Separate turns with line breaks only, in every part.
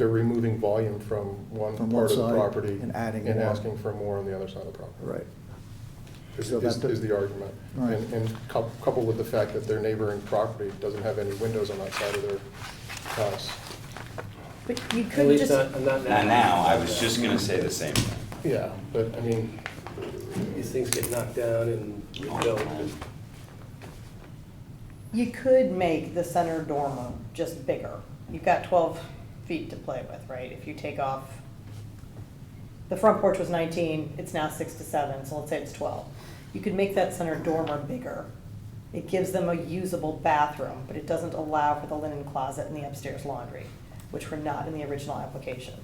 they're removing volume from one
From one
part of the
side
property.
and adding
And
more.
asking for more on the other side of the property.
Right.
Is,
So
is
that-
is the argument.
Right.
And, and cou- coupled with the fact that their neighboring property doesn't have any windows on that side of their house.
But you
At
could
least
just,
not, not now.
Not now, I was just gonna say the same thing.
Yeah, but I mean,
These things get knocked down and rebuilt.
you could make the center dormer just bigger. You've got twelve feet to play with, right? If you take off, the front porch was nineteen, it's now six to seven, so let's say it's twelve. You could make that center dormer bigger. It gives them a usable bathroom, but it doesn't allow for the linen closet and the upstairs laundry, which were not in the original application.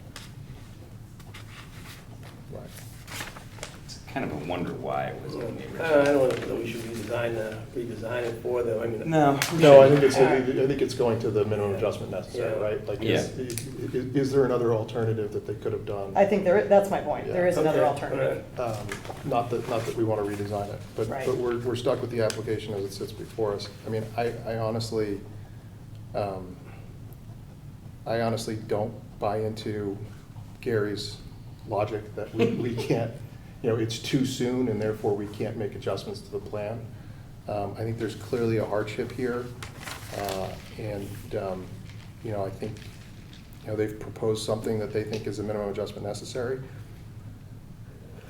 right.
It's kind of a wonder why it wasn't in the
I
original.
don't, I don't know that we should redesign, uh, redesign it for them, I mean.
No. we
No, I
shouldn't.
think it's, I think it's going to the minimum adjustment necessary,
Yeah.
right? Like, is,
Yeah.
i- i- is there another alternative that they could have done?
I think there, that's my point. There is another
Okay,
alternative.
Um, Not that, not that we want to redesign it, but,
Right.
but we're, we're stuck with the application as it sits before us. I mean, I, I honestly, um, I honestly don't buy into Gary's logic that we, we can't, you know, it's too soon and therefore we can't make adjustments to the plan. Um, I think there's clearly a hardship here. uh, And, um, you know, I think, you know, they've proposed something that they think is a minimum adjustment necessary.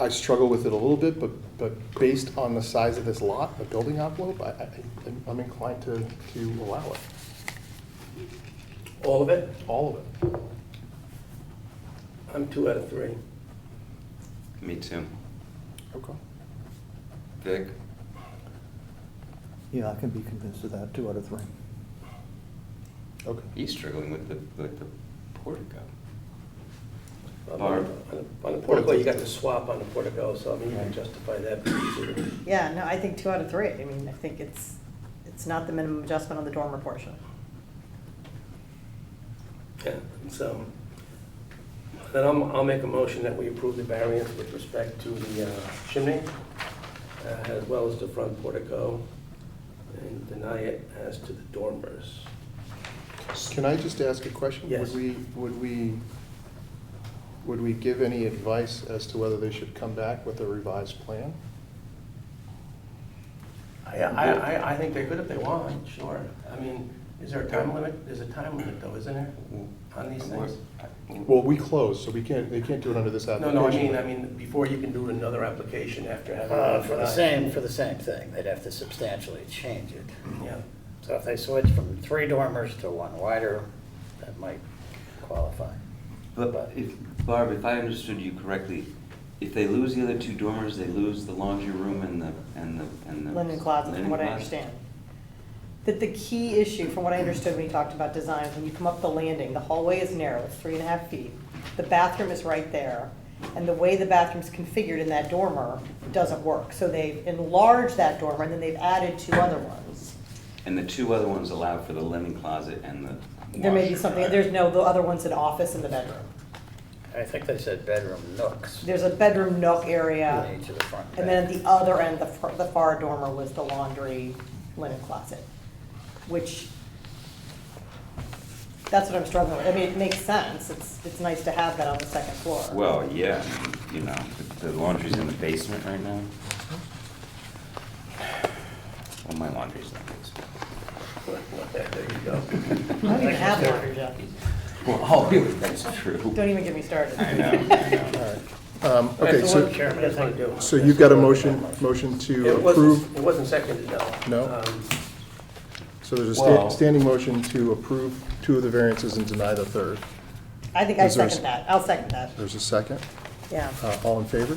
I struggle with it a little bit, but, but based on the size of this lot, the building envelope, I, I, I'm inclined to, to allow it,
All of it?
all of it.
I'm two out of three.
Me too.
Okay.
Vic?
Yeah, I can be convinced of that, two out of three.
Okay.
He's struggling with the, with the portico.
Um,
Barb?
on the- On the portico, you got the swap on the portico, so I mean, you can justify that. pretty easily.
Yeah, no, I think two out of three. I mean, I think it's, it's not the minimum adjustment on the dormer portion.
Yeah, so, then I'll, I'll make a motion that we approve the variance with respect to the uh, chimney, uh, as well as the front portico, and deny it as to the dormers.
Can I just ask a question?
Yes.
Would we, would we, would we give any advice as to whether they should come back with a revised plan?
I, I, I- I think they could if they want, sure. I mean, is there a time limit? There's a time limit though, isn't there, on these things?
Well, we closed, so we can't, they can't do it under this
No,
application.
no, I mean, I mean, before you can do another application after having.
Uh, For the same, for the same thing, they'd have to substantially change it.
Yeah,
So if they switch from three dormers to one wider, that might qualify.
But if, Barb, if I understood you correctly, if they lose the other two dormers, they lose the laundry room and the, and the, and the.
Linen closet, from
linen
what I
closet?
understand. That the key issue, from what I understood when you talked about design, when you come up the landing, the hallway is narrow, it's three and a half feet. The bathroom is right there, and the way the bathroom's configured in that dormer doesn't work. So they've enlarged that dormer, and then they've added two other ones.
And the two other ones allow for the linen closet and the.
There may be
washer,
something,
right?
there's no, the other one's an office and the bedroom.
I think they said bedroom nooks
There's a bedroom nook
in
area.
each of the front
And then at
bedrooms.
the other end, the, far- the far dormer was the laundry linen closet, which, that's what I'm struggling with. I mean, it makes sense. It's, it's nice to have that on the second floor.
Well, yeah, you know, the laundry's in the basement right now. Well, my laundry's in the basement.
there you go.
I don't even have laundry, Jeff.
Well, oh, really, that's true.
Don't even get me started.
I know, I know.
Um, okay,
That's
so,
what Chairman, that's what I do.
so you've got a motion, motion to
It wasn't,
approve,
it wasn't seconded, no.
No?
Um,
so there's a sta-
Well-
standing motion to approve two of the variances and deny the third.
I think I
Is there a-
second that. I'll second that.
There's a second.
Yeah.
Uh, all in favor?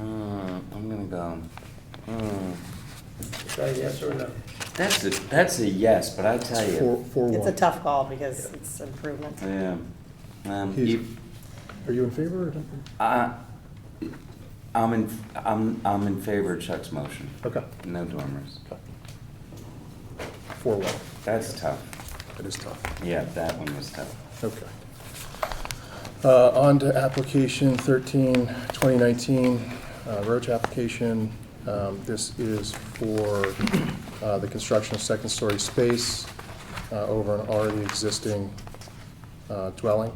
Uh, I'm gonna go, uh,
Is that a yes or a no?
That's a, that's a yes, but I tell
It's four,
you,
four
It's a
one.
tough call because it's improvement.
yeah, um,
He's-
you,
Are you in favor or not?
I, I'm in, I'm, I'm in favor of Chuck's motion.
Okay.
No dormers.
Four one.
That's tough.
That is tough.
Yeah, that one was tough.
Okay. Uh, On to application 13, 2019, uh, Roach application. Um, This is for uh, the construction of second-story space uh, over an already existing uh, dwelling.